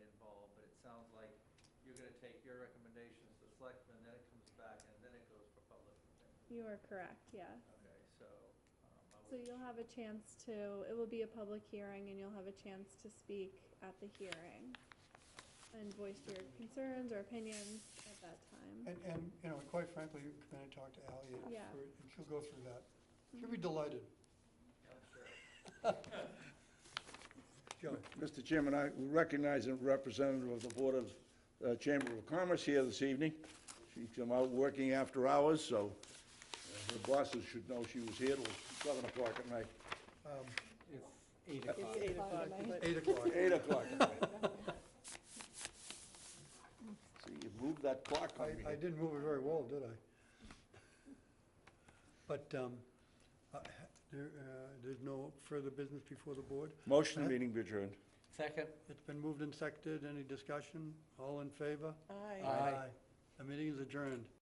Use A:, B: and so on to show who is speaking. A: take your recommendations to selectmen, then it comes back, and then it goes for public.
B: You are correct, yeah.
A: Okay, so. um, I
B: So
A: would-
B: you'll have a chance to, it will be a public hearing and you'll have a chance to speak at the hearing and voice your concerns or opinions at that time.
C: And, and, you know, and quite frankly, you come in and talk to Ally, and
B: Yeah.
C: we're- and she'll go through that. She'll be delighted.
A: I'm sure.
C: Joe,
D: Mr. Chairman, I recognize a representative of the Board of uh, Chamber of Commerce here this evening. She's out working after hours, so uh, her bosses should know she was here till 7 o'clock at night.
E: It's eight o'clock.
B: Eight o'clock tonight.
C: um, eight o'clock.
D: 8 o'clock at night. See, you moved that clock
C: I,
D: on me.
C: I didn't move it very well, did I? But, um, I- there, uh, there's no further business before the board?
D: Motion meeting adjourned.
E: Second?
C: It's been moved and seconded. Any discussion? All in favor?
F: Aye.
E: Aye.
C: The meeting is adjourned.